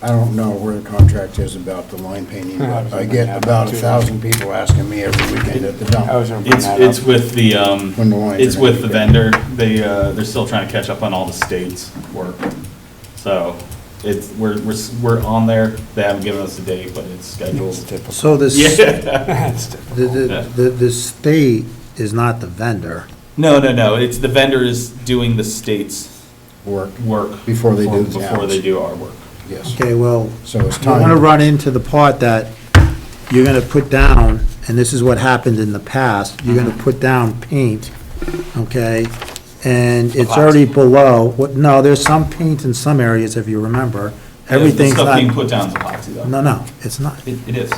I don't know where the contract is about the line painting, but I get about a thousand people asking me every weekend at the I was dump. gonna bring It's, that it's up. with the, um, When the lines it's are with the gonna vendor. They, uh, they're still trying to catch up on all the state's work. So it's, we're, we're, s- we're on there. They haven't given us a date, but it's scheduled. So this, the, Yeah. It's the, the- the state is not the vendor. No, no, no. It's, the vendor is doing the state's Work, work. Before they do the Before ours. they do our work. yes. Okay, well, So it's I'm gonna time. run into the part that you're gonna put down, and this is what happened in the past, you're Mm-hmm. gonna put down paint, okay? And it's already below, what, no, there's some paint in some areas, if you remember. Everything's The stuff being put not, down is epoxy though. no, no, it's not. It, it is.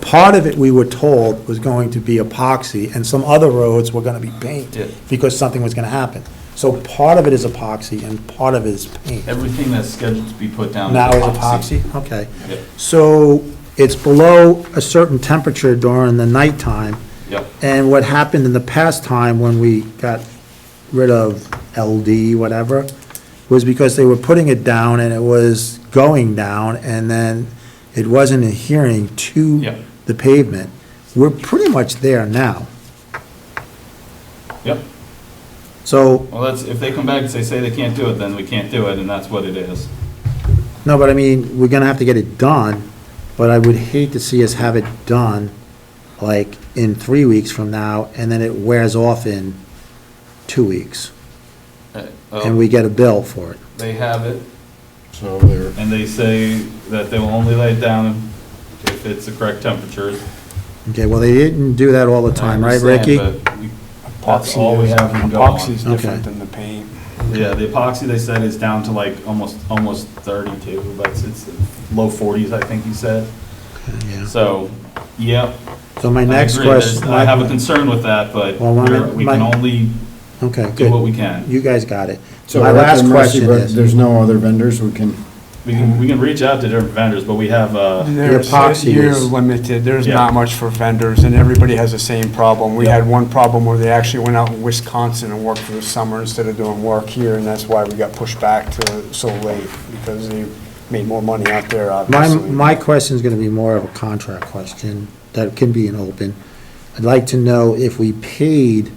Part of it, we were told, was going to be epoxy, and some other roads were gonna be paint, Yeah. because something was gonna happen. So part of it is epoxy, and part of it is paint. Everything that's scheduled to be put down. Now it's epoxy, okay. Yep, So it's below a certain temperature during the nighttime, yep. and what happened in the past time when we got rid of LD, whatever, was because they were putting it down and it was going down, and then it wasn't adhering Yeah. to the pavement. We're pretty much there now. Yep. So, Well, that's, if they come back and say, say they can't do it, then we can't do it, and that's what it is. no, but I mean, we're gonna have to get it done, but I would hate to see us have it done, like, in three weeks from now, and then it wears off in two weeks, Uh, and we get a bill for it. They have it, So there, and they say that they will only lay it down if it's the correct temperature. Okay, well, they didn't do that all the time, I right, Ricky? understand, but we- That's all Epoxy we is, have to go on. epoxy's Okay. different than the paint. Yeah, the epoxy, they said, is down to like almost, almost thirty-two, but it's, it's low forties, I think he said. Yeah. So, yep. So my I next agree. There's- question. I have a concern with that, but Well, my- we're- we can my- only Okay, do what good. we can. You guys got it. so My we're at last their mercy, question but is, There's no other vendors we can, We can, we can reach out to different vendors, but we have, uh, There's- epoxy You're is- limited, there's Yeah. not much for vendors, and everybody has the same problem. We Yeah. had one problem where they actually went out in Wisconsin and worked for the summer instead of doing work here, and that's why we got pushed back to so late, because they made more money out there, my, obviously. my question's gonna be more of a contract question that can be an open. I'd like to know if we paid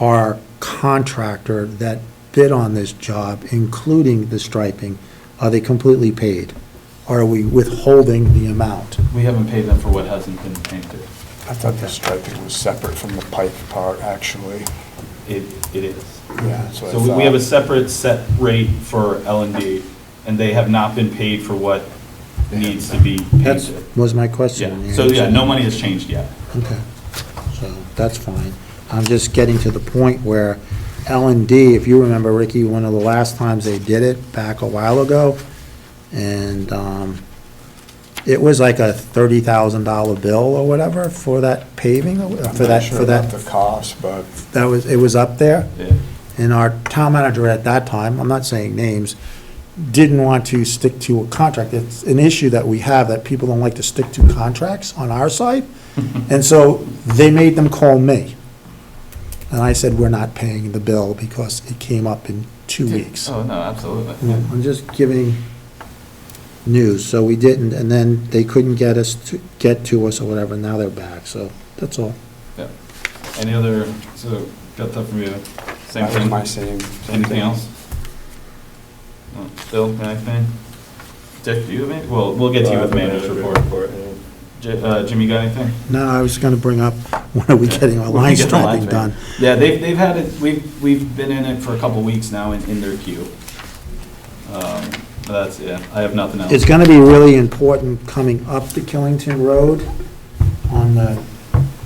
our contractor that bid on this job, including the striping, are they completely paid? Are we withholding the amount? we haven't paid them for what hasn't been painted. I thought the striping was separate from the pipe part, actually. It, it is. Yeah, that's what I So we- we have a thought. separate set rate for L and D, and they have not been paid for what needs to be That's, painted. was my question. Yeah, so yeah, no money has changed yet. Okay, so that's fine. I'm just getting to the point where L and D, if you remember, Ricky, one of the last times they did it, back a while ago, and um, it was like a thirty thousand dollar bill or whatever for that paving, or I'm for not that, sure for about that, The cost, but that was, it was up there. Yeah. And our town manager at that time, I'm not saying names, didn't want to stick to a contract. It's an issue that we have, that people don't like to stick to contracts on our side. And so they made them call me. And I said, we're not paying the bill because it came up in two weeks. Oh, no, absolutely. Yeah, I'm just giving news, so we didn't, and then they couldn't get us to, get to us or whatever, now they're back, so that's all. Yeah. Any other, so got that from you, same that was my thing, same. same anything thing. else? No. Bill, anything? Dick, do you have any, well, we'll get to you with manager's report. Ji- uh, Jimmy, got anything? No, I was gonna bring up, when are we getting our When we line get our line striping done? Yeah, they've, they've had it, we've, we've been in it for a couple weeks now in, in their queue. Um, That's, yeah, I have nothing else. It's gonna be really important coming up the Killington Road on the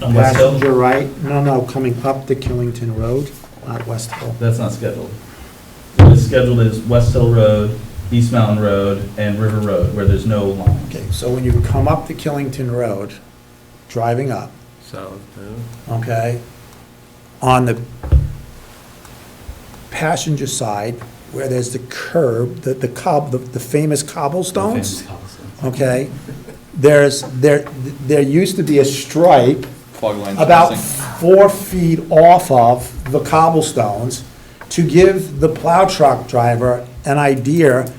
On West Hill? passenger right. No, no, coming up the Killington Road, not West Hill. That's not scheduled. What is scheduled is West Hill Road, East Mountain Road, and River Road, where there's no line. Okay, so when you come up the Killington Road, driving up, So, okay, on the passenger side, where there's the curb, the, the cob, the- the famous cobblestones. okay? There's, there, there used to be a stripe Fog lines about crossing. four feet off of the cobblestones to give the plow truck driver an idea